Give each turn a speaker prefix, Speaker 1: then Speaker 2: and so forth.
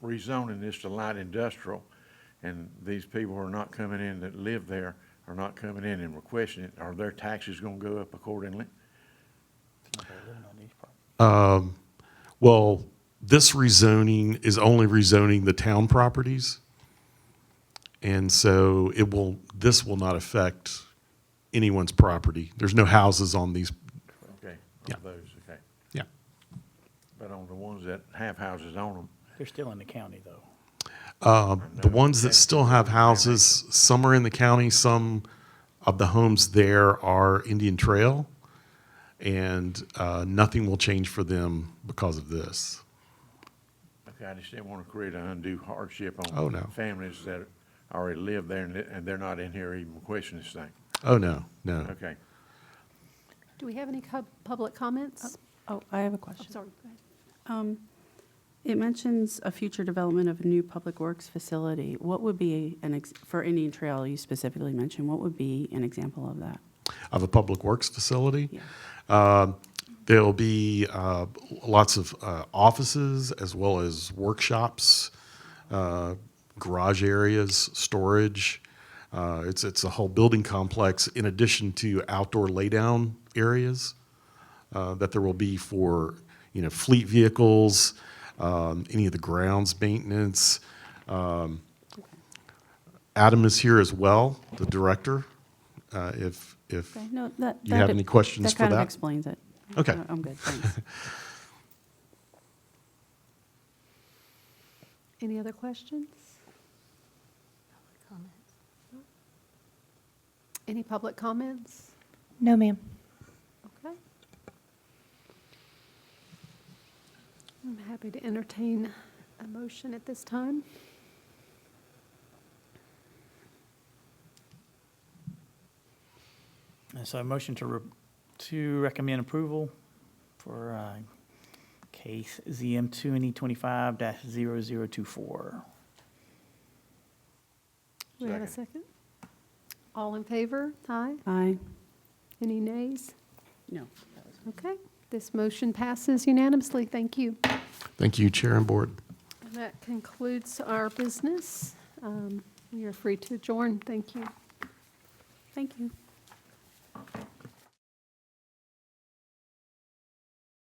Speaker 1: rezoning this to light industrial, and these people are not coming in that live there, are not coming in and requesting it, are their taxes gonna go up accordingly?
Speaker 2: Well, this rezoning is only rezoning the town properties. And so it will, this will not affect anyone's property. There's no houses on these,
Speaker 1: Okay,
Speaker 2: Yeah.
Speaker 1: on those, okay.
Speaker 2: yeah.
Speaker 1: But on the ones that have houses on them,
Speaker 3: They're still in the county, though.
Speaker 2: uh, The ones that still have houses, some are in the county, some of the homes there are Indian Trail. And uh, nothing will change for them because of this.
Speaker 1: okay, I just didn't wanna create an undue hardship on
Speaker 2: Oh, no.
Speaker 1: families that already live there and, and they're not in here even questioning this thing,
Speaker 2: Oh, no, no.
Speaker 1: okay.
Speaker 4: Do we have any co- public comments?
Speaker 5: Oh, I have a
Speaker 4: I'm
Speaker 5: question.
Speaker 4: sorry, go ahead.
Speaker 5: It mentions a future development of a new public works facility. What would be an, ex- for Indian Trail you specifically mentioned, what would be an example of that?
Speaker 2: Of a public works facility.
Speaker 5: Yeah.
Speaker 2: Um, There'll be uh, lots of uh, offices as well as workshops, uh, garage areas, storage. Uh, It's, it's a whole building complex in addition to outdoor laydown areas uh, that there will be for, you know, fleet vehicles, um, any of the grounds maintenance. Um, Adam is here as well, the director, uh, if, if.
Speaker 5: Okay, no, that.
Speaker 2: You have
Speaker 5: that-
Speaker 2: any questions for
Speaker 5: That kind
Speaker 2: that?
Speaker 5: of explains it.
Speaker 2: Okay.
Speaker 5: I- I'm good, thanks.
Speaker 4: Any other questions? Any public comments?
Speaker 6: No, ma'am.
Speaker 4: Okay. I'm happy to entertain a motion at this time.
Speaker 3: And so a motion to, re- to recommend approval for uh, case ZM 2NE25-0024.
Speaker 4: Do we have a
Speaker 1: Second.
Speaker 4: second? All in favor? Aye.
Speaker 5: Aye,
Speaker 4: Any nays?
Speaker 5: no.
Speaker 4: Okay, this motion passes unanimously. Thank you.
Speaker 2: Thank you, Chair and Board.
Speaker 4: And that concludes our business. Um, We are free to adjourn. Thank you.
Speaker 5: Thank you.